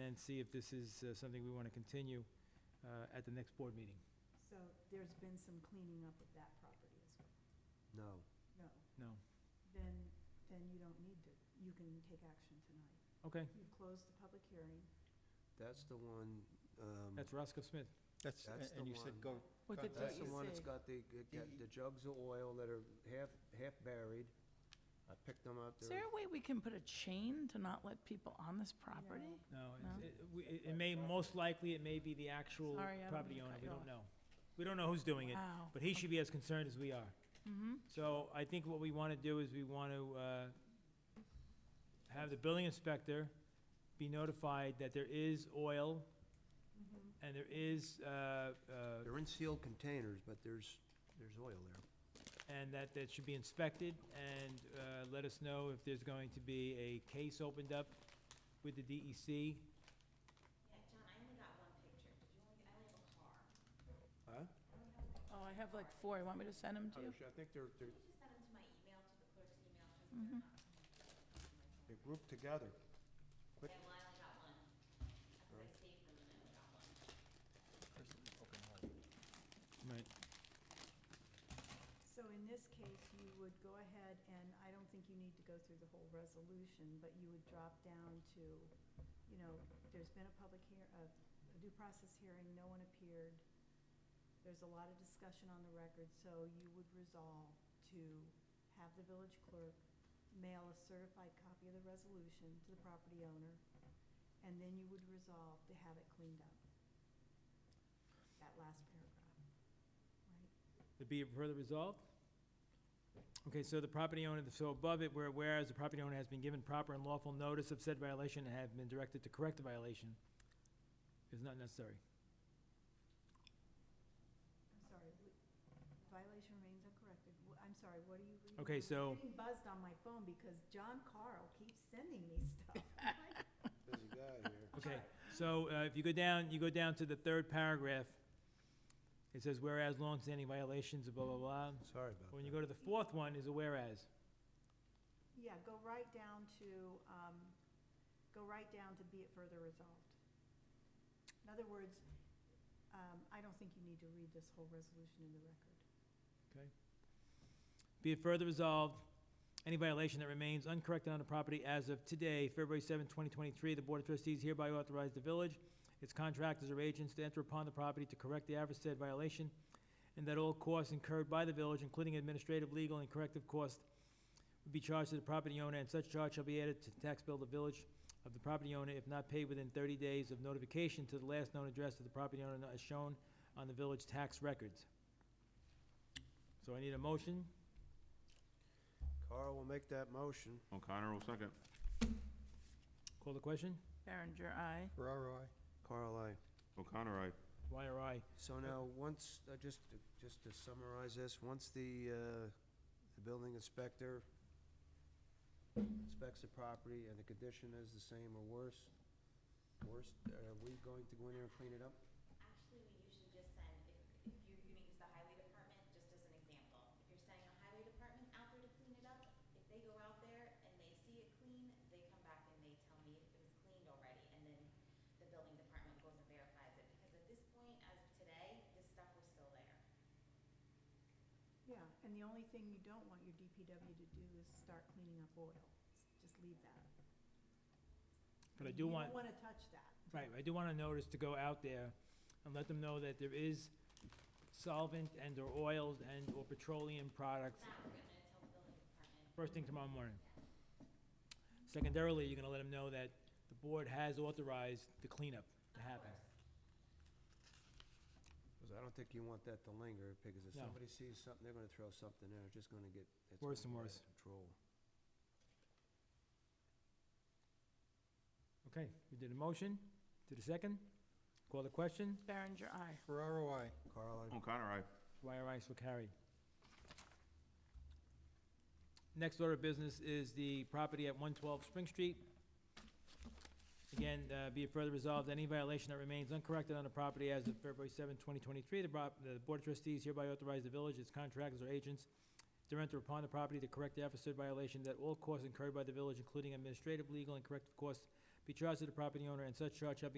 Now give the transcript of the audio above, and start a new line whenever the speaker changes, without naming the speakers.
then see if this is uh, something we want to continue uh, at the next board meeting.
So there's been some cleaning up of that property as well?
No.
No,
No?
then, then you don't need to, you can take action tonight.
Okay,
You've closed the public hearing.
That's the one, um,
that's Roscoe Smith.
That's,
That's the
a- and you said
one.
go,
Well,
Got
that-
that's
that.
the
you
one
say.
that's got the, it got
The-
the jugs of oil that are half, half buried. I picked them up.
Is
They're-
there a way we can put a chain to not let people on this property?
No, it's-
No.
it- we- it it may, most likely, it may be the actual
Sorry, I don't
property
mean to
owner,
cut
we
you
don't
off. Uh,
know. We don't know who's doing it,
Wow.
but he should be as concerned as we are.
Mhm.
So I think what we want to do is we want to uh, have the building inspector be notified that there is oil
Mm-hmm.
and there is, uh, uh,
They're in sealed containers, but there's, there's oil there.
and that that should be inspected, and uh, let us know if there's going to be a case opened up with the E DEC.
Yeah, John, I only got one picture. Did you only, I only have a car.
Huh?
Oh, I have like four. You want me to send them to
Oh,
you?
I think they're, they're,
Could you just send them to my email, to the clerk's
Mm-hmm.
email, because they're not.
they're grouped together. Quick.
Yeah, well, I only got one. I thought I saved them and I only got one.
Right.
So in this case, you would go ahead, and I don't think you need to go through the whole resolution, but you would drop down to, you know, there's been a public hear, a a due process hearing, no one appeared. There's a lot of discussion on the record, so you would resolve to have the village clerk mail a certified copy of the resolution to the property owner, and then you would resolve to have it cleaned up. That last paragraph, right?
To be further resolved? Okay, so the property owner, so above it, where whereas the property owner has been given proper and lawful notice of said violation and have been directed to correct the violation, is not necessary.
I'm sorry, w- violation remains uncorrected. W- I'm sorry, what are you reading?
Okay,
I'm
so-
Getting buzzed on my phone because John Carl keeps sending me stuff. Like,
Busy guy here.
Okay, so uh, if you go down, you go down to the third paragraph, it says whereas longstanding violations of blah, blah, blah.
Sorry about that.
When you go to the fourth one is a whereas.
Yeah, go right down to, um, go right down to be it further resolved. In other words, um, I don't think you need to read this whole resolution in the record.
Be it further resolved, any violation that remains uncorrected on the property as of today, February 7, 2023, the Board of Trustees hereby authorize the village, its contractors or agents to enter upon the property to correct the aforesaid violation, and that all costs incurred by the village, including administrative, legal, and corrective costs, will be charged to the property owner, and such charge shall be added to the tax bill of the village of the property owner if not paid within 30 days of notification to the last known address of the property owner as shown on the village tax records. So I need a motion.
Carl will make that motion.
O'Connor will second.
Call the question?
Berenger, aye.
Ferraro, I.
Carl, I.
O'Connor, aye.
Why or I?
So now, once, uh, just, to- just to summarize this, once the, uh, the building inspector inspects the property and the condition is the same or worse, worse, are we going to go in there and clean it up?
Actually, we usually just send, if, if you're gonna use the highway department, just as an example, if you're sending a highway department out there to clean it up, if they go out there and they see it clean, they come back and they tell me if it was cleaned already, and then the building department goes and verifies it, because at this point, as of today, this stuff was still there.
Yeah, and the only thing you don't want your DPW to do is start cleaning up oil. S- Just leave that.
But I do want,
You don't wanna touch that.
right, I do want to notice to go out there and let them know that there is solvent and/or oils and/or petroleum products
That we're gonna tell the building department.
first thing tomorrow morning. Secondarily, you're going to let them know that the board has authorized the cleanup to happen.
Because I don't think you want that to linger, because if
No.
somebody sees something, they're gonna throw something in, it's just gonna get, it's
Worse
gonna
and
get out
worse.
of Control.
Okay, we did a motion, did a second, call the question,
Berenger, aye.
Ferraro, I.
Carl, I.
O'Connor, aye.
why are I so carried? Next order of business is the property at 112 Spring Street. Again, uh, be it further resolved, any violation that remains uncorrected on the property as of February 7, 2023, the prop- the Board of Trustees hereby authorize the village, its contractors or agents to enter upon the property to correct the aforesaid violation that all costs incurred by the village, including administrative, legal, and corrective costs, be charged to the property owner, and such charge shall be